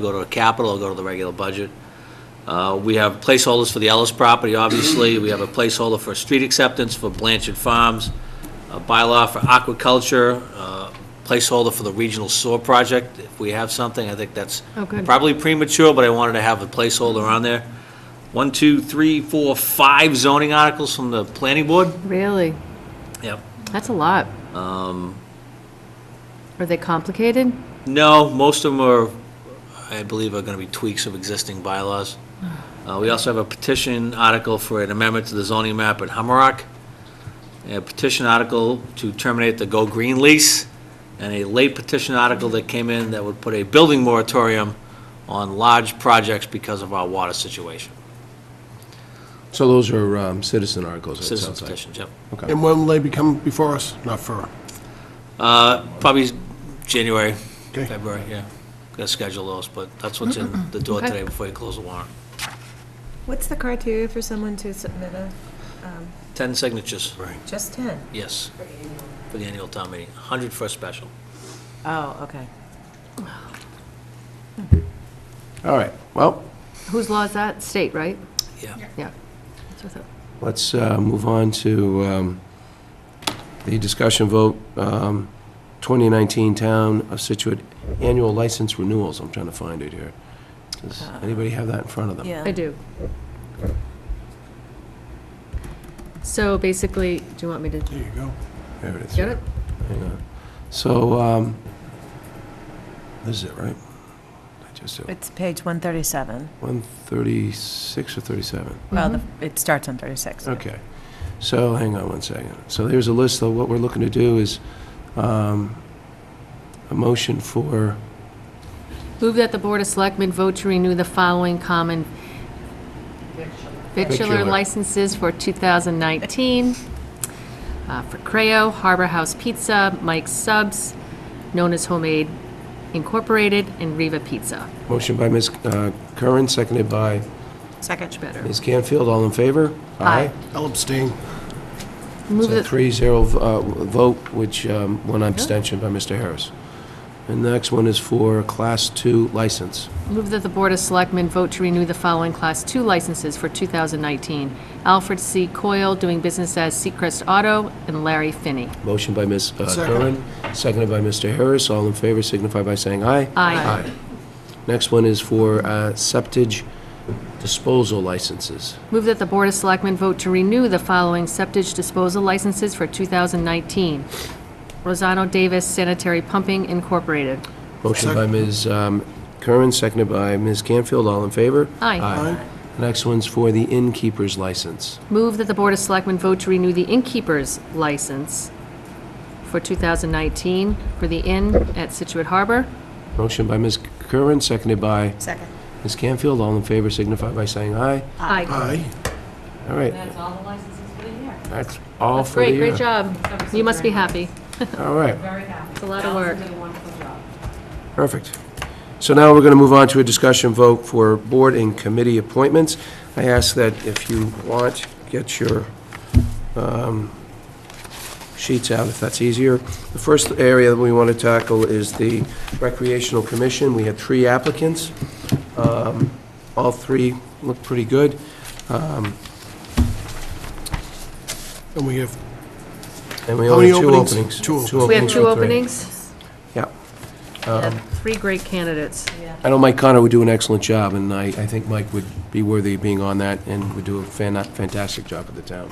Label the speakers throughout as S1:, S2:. S1: go to capital, or go to the regular budget. Uh, We have placeholders for the Ellis property, obviously. We have a placeholder for street acceptance for Blanchard Farms, a bylaw for aquaculture, uh, placeholder for the regional sewer project. If we have something, I think that's
S2: Oh, good.
S1: probably premature, but I wanted to have a placeholder on there. One, two, three, four, five zoning articles from the planning board.
S2: Really?
S1: Yep.
S2: That's a lot. Are they complicated?
S1: No, most of them are, I believe, are going to be tweaks of existing bylaws. Uh, We also have a petition article for an amendment to the zoning map at Hummerock, a petition article to terminate the Go Green lease, and a late petition article that came in that would put a building moratorium on large projects because of our water situation.
S3: So those are um, citizen articles, it
S1: Citizen
S3: sounds like.
S1: petitions, yep.
S3: Okay.
S4: And when will they become before us? Not for,
S1: Uh, Probably January,
S4: Okay.
S1: February, yeah. Got to schedule those, but that's what's in the door
S2: Okay.
S1: today before you close the warrant.
S5: What's the criteria for someone to submit a,
S1: 10 signatures. Right.
S5: just 10?
S1: Yes, for the annual town meeting, 100 for a special.
S5: Oh, okay.
S3: All right, well,
S2: Whose law is that? State, right?
S1: Yeah.
S2: Yeah. That's what I thought.
S3: let's uh, move on to um, the discussion vote, um, 2019 Town of Situate Annual License Renewals. I'm trying to find it here. Does anybody have that in front of them?
S5: Yeah.
S2: I do. So basically, do you want me to
S4: there you go.
S3: There it is.
S2: get it?
S3: Hang on. So, um, this is it, right? I just, did it.
S5: It's page 137.
S3: 136 or 37?
S5: Well, the- it starts on 36.
S3: Okay. So, hang on one second. So there's a list, though. What we're looking to do is um, a motion for,
S2: Move that the Board of Selectmen vote to renew the following common
S3: Victular.
S2: victular licenses for 2019, uh, for Creo, Harbor House Pizza, Mike's Subs, known as Homemade Incorporated, and Riva Pizza.
S3: motion by Ms. uh, Curran, seconded by
S5: Second.
S2: Better.
S3: Ms. Canfield. All in favor?
S2: Aye.
S4: I'll abstain.
S2: Move
S3: So
S2: that-
S3: three zero uh, vote, which um, one abstention by Mr. Harris. And the next one is for Class 2 license.
S2: Move that the Board of Selectmen vote to renew the following Class 2 licenses for 2019. Alfred C. Coyle, doing business as Seacrest Auto, and Larry Finney.
S3: Motion by Ms. uh,
S4: Second.
S3: Curran, seconded by Mr. Harris. All in favor signify by saying aye.
S2: Aye.
S3: Next one is for uh, septage disposal licenses.
S2: Move that the Board of Selectmen vote to renew the following septic disposal licenses for 2019. Rosano Davis Sanitary Pumping Incorporated.
S3: Motion by Ms. um, Curran, seconded by Ms. Canfield. All in favor?
S2: Aye.
S3: Next one's for the innkeeper's license.
S2: Move that the Board of Selectmen vote to renew the innkeeper's license for 2019 for the inn at Situate Harbor.
S3: Motion by Ms. Curran, seconded by
S5: Second.
S3: Ms. Canfield. All in favor signify by saying aye.
S2: Aye.
S4: Aye.
S3: All right,
S2: That's all the licenses for the year.
S3: that's all
S2: That's
S3: for the uh,
S2: great,
S3: year.
S2: great job. You must be happy.
S3: All right.
S2: It's a lot of work.
S3: Perfect. So now we're going to move on to a discussion vote for board and committee appointments. I ask that if you want, get your um, sheets out if that's easier. The first area that we want to tackle is the recreational commission. We had three applicants. Um, All three look pretty good. Um,
S4: And we have,
S3: And we
S4: How
S3: only
S4: many
S3: have two openings.
S4: openings? Two
S2: We have two
S3: for three.
S2: openings.
S3: Yeah.
S2: Three great candidates.
S3: I know Mike Connor would do an excellent job, and I, I think Mike would be worthy of being on that and would do a fan- fantastic job at the town.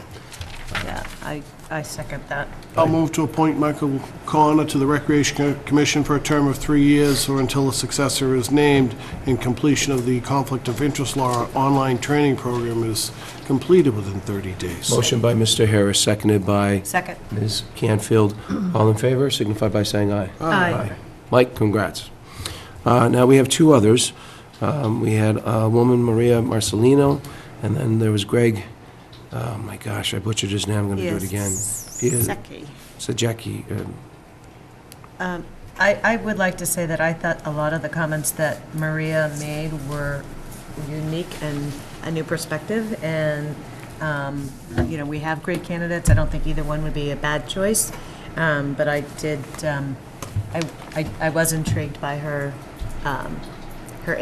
S5: Yeah, I, I second that.
S4: I'll move to appoint Michael Connor to the Recreation Co- Commission for a term of three years or until a successor is named and completion of the Conflict of Interest Law online training program is completed within 30 days.
S3: Motion by Mr. Harris, seconded by
S5: Second.
S3: Ms. Canfield. All in favor, signify by saying aye.
S2: Aye.
S3: Mike, congrats. Uh, Now, we have two others. Um, We had a woman, Maria Marcelino, and then there was Greg, oh my gosh, I butchered his name, I'm going to do it again. Peter Sajecki, uh,
S5: Um, I, I would like to say that I thought a lot of the comments that Maria made were unique and a new perspective, and, um, you know, we have great candidates, I don't think either one would be a bad choice, um, but I did, um, I, I- I was intrigued by her um,